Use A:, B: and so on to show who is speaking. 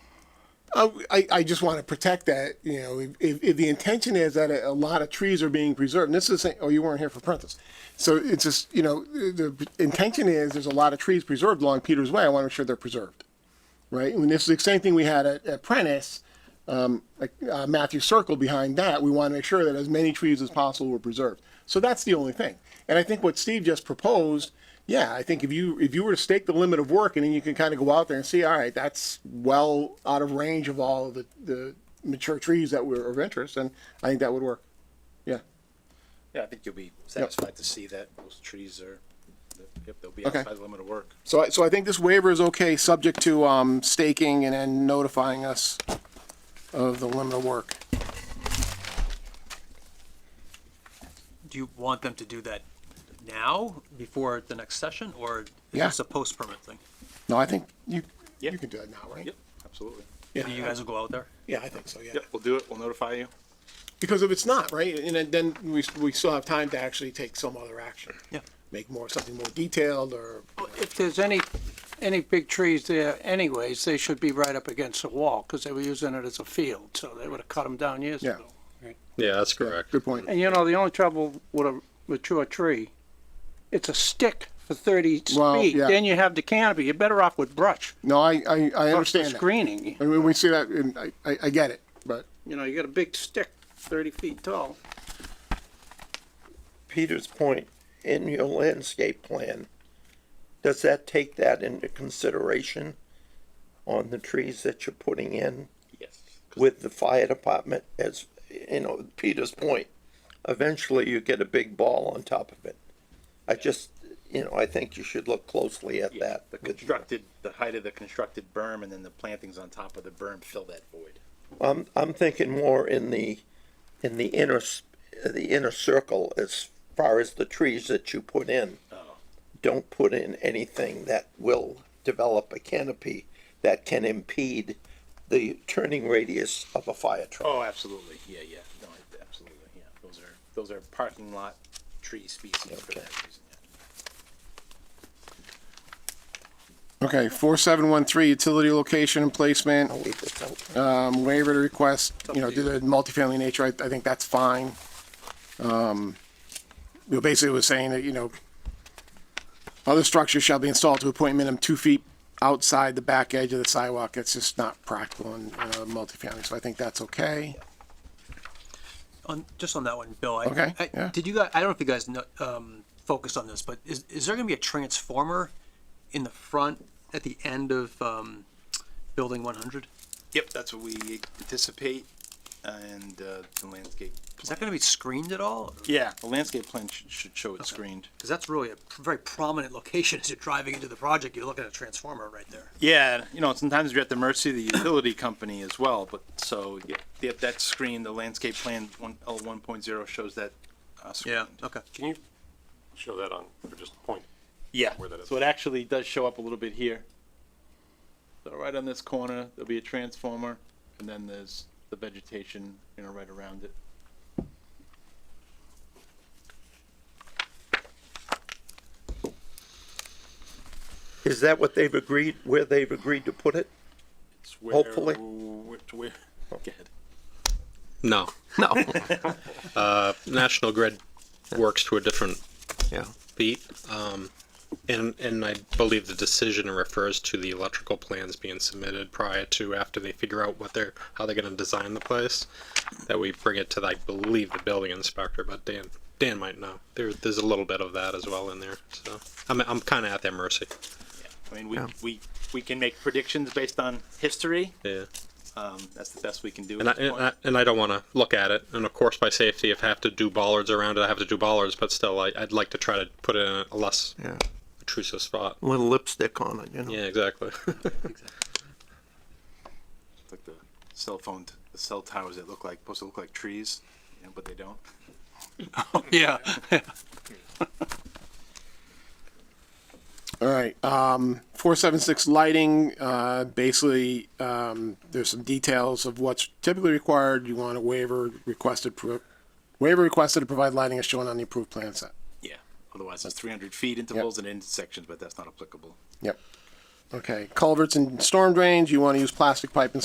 A: Uh, I, I just want to protect that, you know, if, if, if the intention is that a, a lot of trees are being preserved, and this is, saying, oh, you weren't here for Prentice. So it's just, you know, the the intention is there's a lot of trees preserved along Peters Way. I want to make sure they're preserved, right? And this is the same thing we had at, at Prentice, um, like uh, Matthew Circle behind that. We want to make sure that as many trees as possible were preserved. So that's the only thing. And I think what Steve just proposed, yeah, I think if you if you were to stake the limit of work and then you can kind of go out there and see, all right, that's well out of range of all the, the mature trees that were of interest, and I think that would work. Yeah.
B: Yeah, I think you'll be satisfied to see that those trees are, that- yep, they'll be
A: Okay.
B: outside the limit of work.
A: So I, so I think this waiver is okay, subject to, um, staking and then notifying us of the limit of work.
C: Do you want them to do that now, before the next session, or is
A: Yeah.
C: this a post-permit thing?
A: No, I think you,
B: Yeah.
A: you can do that now, right?
B: Yep, absolutely.
A: Yeah.
C: You guys will go out there?
A: Yeah, I think so, yeah.
B: Yep, we'll do it, we'll notify you.
A: Because if it's not, right, and then- then we, we still have time to actually take some other action.
C: Yeah.
A: Make more, something more detailed or,
D: Well, If there's any, any big trees there anyways, they should be right up against the wall, because they were using it as a field, so they would have cut them down years
A: Yeah.
D: ago.
E: Yeah, that's correct.
A: good point.
D: And you know, the only trouble with a mature tree, it's a stick for thirty
A: Well,
D: feet,
A: yeah.
D: then you have the canopy, you're better off with brush.
A: No, I, I, I
D: brush for
A: understand that.
D: Screening,
A: And when we see that, and I, I, I get it, but
D: you know, you got a big stick, thirty feet tall.
F: Peter's point, in your landscape plan, does that take that into consideration on the trees that you're putting in
B: Yes.
F: with the fire department as, you know, Peter's point? Eventually you get a big ball on top of it. I just, you know, I think you should look closely at that.
B: The constructed, the height of the constructed berm and then the plantings on top of the berm fill that void.
F: I'm, I'm thinking more in the, in the inner, s- the inner circle as far as the trees that you put in. Don't put in anything that will develop a canopy that can impede the turning radius of a fire truck.
B: Oh, absolutely, yeah, yeah, no, absolutely, yeah, those are, those are parking lot tree species for
F: Okay.
B: that reason, yeah.
A: Okay, four seven one three, utility location and placement,
F: I'll leave this out.
A: um, waiver to request, you know, do the multifamily nature, I, I think that's fine. Um, you know, basically it was saying that, you know, other structures shall be installed to a point minimum two feet outside the back edge of the sidewalk, it's just not practical in, uh, multifamily, so I think that's okay.
C: On, just on that one, Bill, I.
A: Okay,
C: I-
A: yeah.
C: Did you guys, I don't know if you guys know, um, focused on this, but is, is there gonna be a transformer in the front at the end of, um, building one hundred?
B: Yep, that's what we anticipate and, uh, the landscape.
C: Is that gonna be screened at all?
B: Yeah, the landscape plan should, should show it screened.
C: Cause that's really a very prominent location as you're driving into the project, you're looking at a transformer right there.
B: Yeah, you know, sometimes you're at the mercy of the utility company as well, but so, yeah, yeah, that screen, the landscape plan, one, L one point zero shows that, uh, screened.
C: Okay.
G: Can you show that on, or just point?
B: Yeah,
G: Where that is.
B: so it actually does show up a little bit here. So right on this corner, there'll be a transformer, and then there's the vegetation, you know, right around it.
F: Is that what they've agreed, where they've agreed to put it?
B: It's where,
F: Hopefully.
B: where- to where- go ahead.
E: No, no. uh, National Grid works to a different yeah. beat, um, and and I believe the decision refers to the electrical plans being submitted prior to after they figure out what they're how they're going to design the place. That we bring it to I believe the building inspector, but Dan Dan might know. There there's a little bit of that as well in there, so I'm I'm kind of at their mercy.
B: I mean, we, we, we can make predictions based on history,
E: Yeah.
B: um, that's the best we can do
E: And I,
B: at this
E: and, I,
B: point.
E: and I don't want to look at it. And of course, by safety, if I have to do bollards around it, I have to do bollards. But still, I, I'd like to try to put it in a less
F: Yeah,
E: obtrusive spot.
F: little lipstick on it, you know?
E: Yeah, exactly.
B: It's Like the cell phone, t- the cell towers that look like, supposed to look like trees, you know, but they don't.
C: Yeah.
A: All right, um, four seven six lighting, uh, basically, um, there's some details of what's typically required, you want a waiver requested, pro- waiver requested to provide lighting as shown on the approved plan set.
B: Yeah, otherwise it's three hundred feet intervals and intersections, but that's not applicable.
A: Yep. Okay, culverts and storm drains, you want to use plastic pipe and